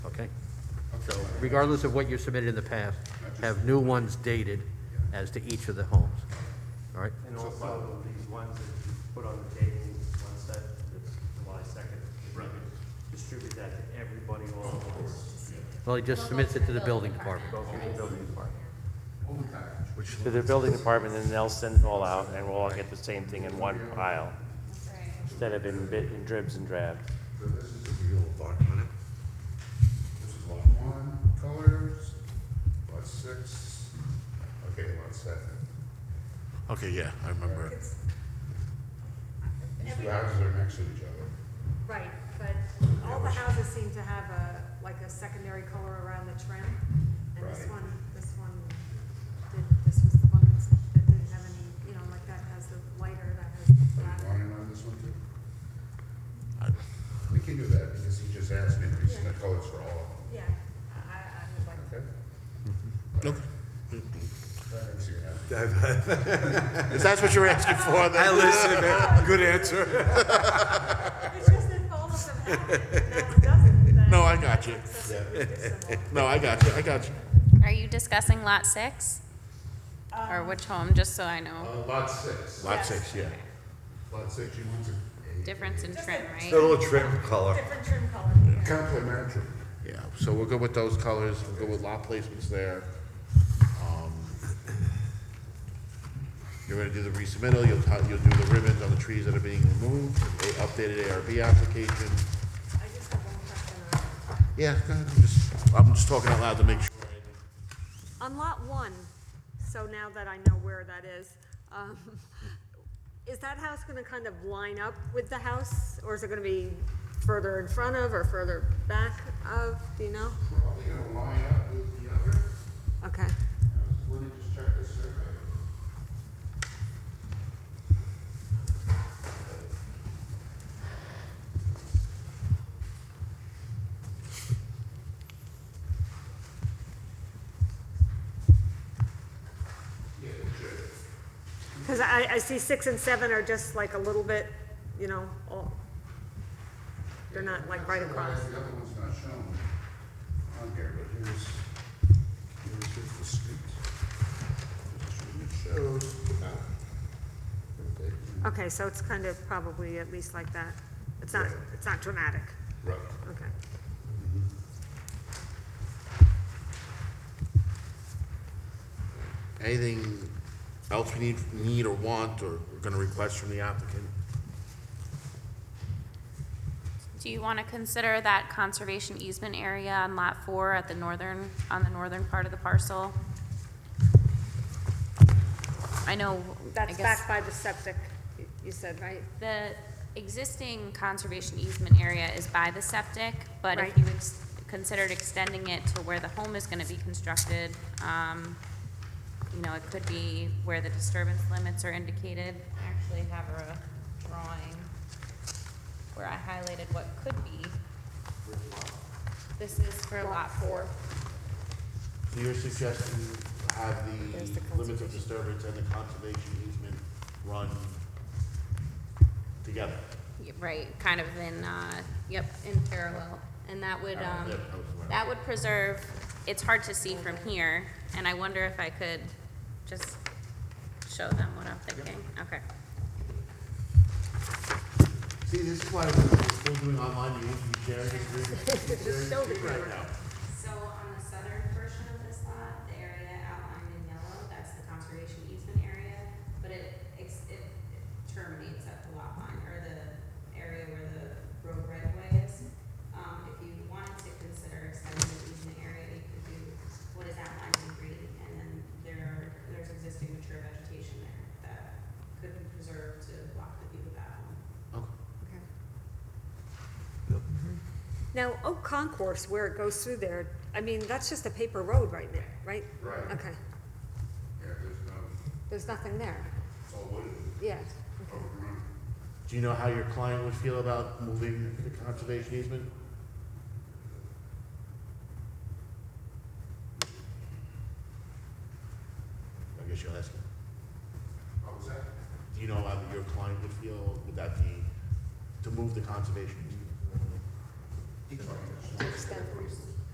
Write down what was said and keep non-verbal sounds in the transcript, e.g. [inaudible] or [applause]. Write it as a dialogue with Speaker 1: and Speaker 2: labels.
Speaker 1: So regardless of what you submitted in the past, have new ones dated as to each of the homes. All right?
Speaker 2: And also, these ones that you put on the table, one set, that's July second. Distribute that to everybody all at once.
Speaker 1: Well, he just submits it to the building department.
Speaker 2: Go through the building department.
Speaker 3: Which,
Speaker 2: To the building department, and they'll send it all out, and we'll all get the same thing in one pile, instead of in bit, in dribs and drabs.
Speaker 3: so this is the real lot on it. This is lot one, colors, lot six, okay, lot seven.
Speaker 4: Okay, yeah, I remember. it.
Speaker 5: It's-
Speaker 3: These two
Speaker 5: every-
Speaker 3: houses are next to each other.
Speaker 5: Right, but all the houses seem to have a, like a secondary color around the trim. And this
Speaker 3: Right.
Speaker 5: one, this one, did this was the one that's- that didn't have any, you know, like that has the lighter, that has the
Speaker 3: Are you
Speaker 5: black.
Speaker 3: wanting on this one too?
Speaker 4: I-
Speaker 3: We can do that because he just asked me to reason the colors for all of them.
Speaker 5: Yeah, I, I would like
Speaker 3: Okay? Mm-hmm.
Speaker 4: Look,
Speaker 3: That makes you happy.
Speaker 4: If that's what you're asking for, then. I listen, good answer.
Speaker 5: It's just that all of them have it, and that one doesn't.
Speaker 4: [laughs]
Speaker 5: then
Speaker 4: No, I got you.
Speaker 5: it's accessory use symbol.
Speaker 4: No, I got you, I got you.
Speaker 6: Are you discussing lot six? Or which home, just so I know,
Speaker 3: Uh, lot six.
Speaker 4: Lot six, yeah.
Speaker 3: Lot six, you want to.
Speaker 6: difference in trim, right?
Speaker 7: Little trim color.
Speaker 5: Different trim color. yeah.
Speaker 3: Complimentary.
Speaker 4: Yeah, so we'll go with those colors, we'll go with lot placements there. Um, You're gonna do the resubmittal, you'll, ti- you'll do the ribbons on the trees that are being removed, the updated ARB application.
Speaker 5: I just have one question uh, on it.
Speaker 4: Yeah, go ahead, I'm just, I'm just talking out loud to make sure.
Speaker 5: On lot one, so now that I know where that is, um, is that house gonna kind of line up with the house? Or is it gonna be further in front of or further back of, do you know?
Speaker 3: Probably gonna line up with the other.
Speaker 5: Okay,
Speaker 3: Let me just check this survey.
Speaker 5: cause I, I see six and seven are just like a little bit, you know, all, they're not like right across.
Speaker 3: The other one's not shown on here, but here's, here's here's the street. This is where it shows. They-
Speaker 5: Okay, so it's kind of probably at least like that. It's not, it's not dramatic,
Speaker 3: Right.
Speaker 5: okay.
Speaker 4: Anything else we need, need or want, or we're gonna request from the applicant?
Speaker 6: Do you want to consider that conservation easement area on lot four at the northern, on the northern part of the parcel? I know, I
Speaker 5: That's
Speaker 6: guess,
Speaker 5: back by the septic, y- you said, right?
Speaker 6: the existing conservation easement area is by the septic, but
Speaker 5: Right.
Speaker 6: if you ex- considered extending it to where the home is going to be constructed, um, you know, it could be where the disturbance limits are indicated. I actually have a drawing where I highlighted what could be. This is for lot four.
Speaker 4: So you're suggesting have the limits of disturbance and the conservation easement run together?
Speaker 6: Y- Right, kind of in, uh, yep, in parallel. And that would, um,
Speaker 4: yeah, that was what I-
Speaker 6: that would preserve, it's hard to see from here, and I wonder if I could just show them what I'm thinking. Okay.
Speaker 4: See, this is why we're still doing online meetings, we share this, we share this right now.
Speaker 6: So on the southern portion of this lot, the area outlined in yellow, that's the conservation easement area, but it, ex- it it terminates at the lot line, or the area where the road right of way is. Um, if you wanted to consider extending the easement area, you could do what is outlined in green, and then there, there's existing mature vegetation there that could be preserved to block the view of that home.
Speaker 5: Mm-hmm. Now, Oak Concourse, where it goes through there, I mean, that's just a paper road right now, right?
Speaker 3: Right.
Speaker 5: Okay,
Speaker 3: Yeah, there's no,
Speaker 5: there's nothing there,
Speaker 3: it's all wooded,
Speaker 5: yeah.
Speaker 3: overgrown.
Speaker 4: Do you know how your client would feel about moving the conservation easement? I guess you'll ask him.
Speaker 3: What was that?
Speaker 4: Do you know how your client would feel, would that be, to move the conservation easement?
Speaker 3: He told me.
Speaker 5: Extend.